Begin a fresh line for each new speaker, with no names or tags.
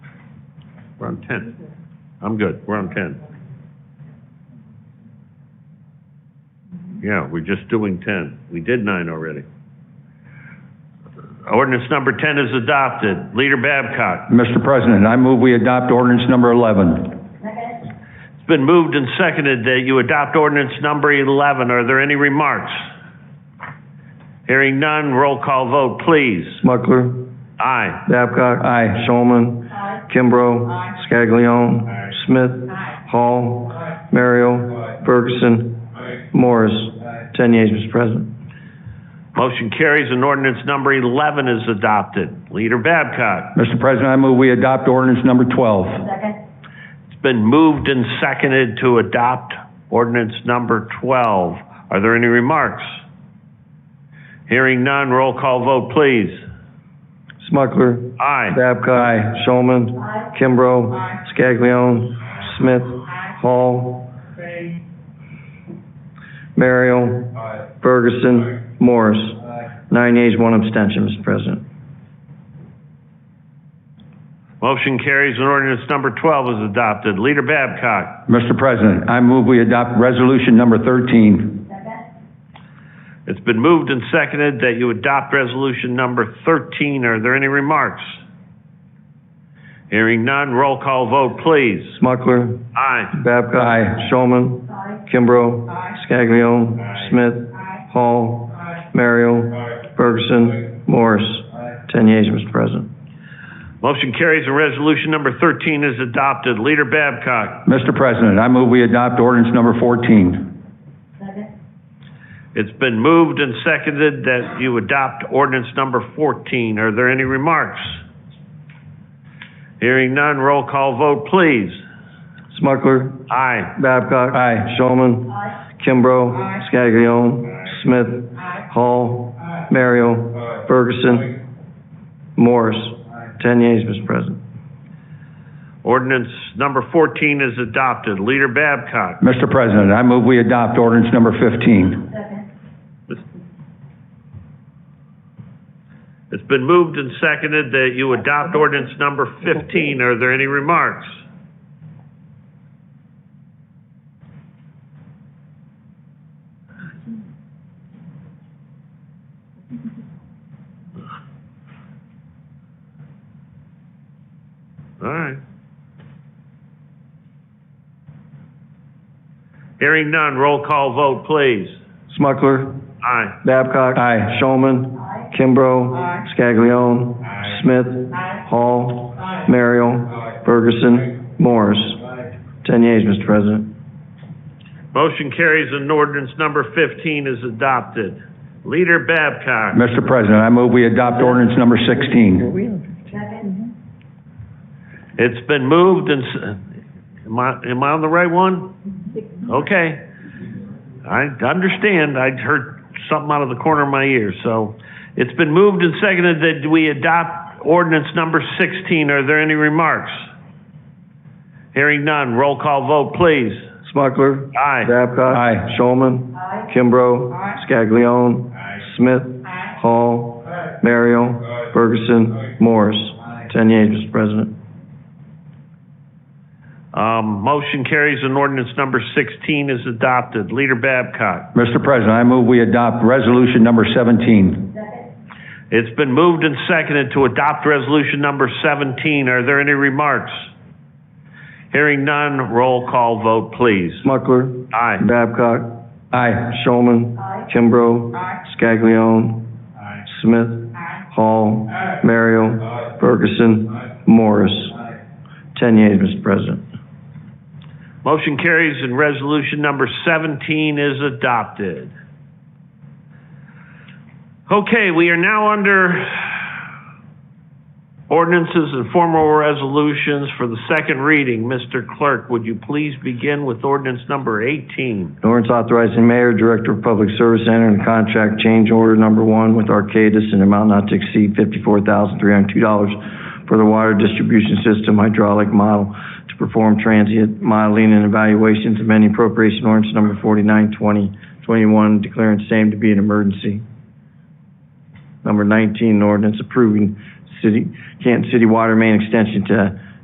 We're on ten. I'm good, we're on ten. Yeah, we're just doing ten. We did nine already. Ordinance number ten is adopted. Leader Babcock.
Mr. President, I move we adopt ordinance number 11.
It's been moved and seconded that you adopt ordinance number eleven. Are there any remarks? Hearing none, roll call vote, please.
Smucker.
Aye.
Babcock.
Aye.
Showman. Kimbrough. Scaglione. Smith. Hall. Merrill. Ferguson. Morris. Ten yeas, Mr. President.
Motion carries and ordinance number eleven is adopted. Leader Babcock.
Mr. President, I move we adopt ordinance number 12.
It's been moved and seconded to adopt ordinance number 12. Are there any remarks? Hearing none, roll call vote, please.
Smucker.
Aye.
Babcock. Showman. Kimbrough. Scaglione. Smith. Hall. Merrill. Ferguson. Morris. Nine yeas, one abstention, Mr. President.
Motion carries and ordinance number 12 is adopted. Leader Babcock.
Mr. President, I move we adopt resolution number 13.
It's been moved and seconded that you adopt resolution number 13. Are there any remarks? Hearing none, roll call vote, please.
Smucker.
Aye.
Babcock.
Aye.
Showman. Kimbrough. Scaglione. Smith. Hall. Merrill. Ferguson. Morris. Ten yeas, Mr. President.
Motion carries and resolution number 13 is adopted. Leader Babcock.
Mr. President, I move we adopt ordinance number 14.
It's been moved and seconded that you adopt ordinance number 14. Are there any remarks? Hearing none, roll call vote, please.
Smucker.
Aye.
Babcock.
Aye.
Showman. Kimbrough. Scaglione. Smith. Hall. Merrill. Ferguson. Morris. Ten yeas, Mr. President.
Ordinance number 14 is adopted. Leader Babcock.
Mr. President, I move we adopt ordinance number 15.
It's been moved and seconded that you adopt ordinance number 15. Are there any remarks? All right. Hearing none, roll call vote, please.
Smucker.
Aye.
Babcock.
Aye.
Showman. Kimbrough. Scaglione. Smith. Hall. Merrill. Ferguson. Morris. Ten yeas, Mr. President.
Motion carries and ordinance number 15 is adopted. Leader Babcock.
Mr. President, I move we adopt ordinance number 16.
It's been moved and, s- am I, am I on the right one? Okay. I understand. I heard something out of the corner of my ear, so. It's been moved and seconded that we adopt ordinance number 16. Are there any remarks? Hearing none. Roll call vote, please.
Smucker.
Aye.
Babcock.
Aye.
Showman. Kimbrough. Scaglione. Smith. Hall. Merrill. Ferguson. Morris. Ten yeas, Mr. President.
Um, motion carries and ordinance number 16 is adopted. Leader Babcock.
Mr. President, I move we adopt resolution number 17.
It's been moved and seconded to adopt resolution number 17. Are there any remarks? Hearing none, roll call vote, please.
Smucker.
Aye.
Babcock.
Aye.
Showman. Kimbrough. Scaglione. Smith. Hall. Merrill. Ferguson. Morris. Ten yeas, Mr. President.
Motion carries and resolution number 17 is adopted. Okay, we are now under ordinances and formal resolutions for the second reading. Mr. Clerk, would you please begin with ordinance number 18?
An ordinance authorizing mayor, director of public service, to enter into contract change order number one with Arcadis in an amount not to exceed fifty-four thousand three hundred two dollars for the water distribution system hydraulic model to perform transient modeling and evaluations amending appropriation ordinance number forty-nine twenty twenty-one, declaring same to be an emergency. Number nineteen, an ordinance approving city, Canton City Water Main Extension to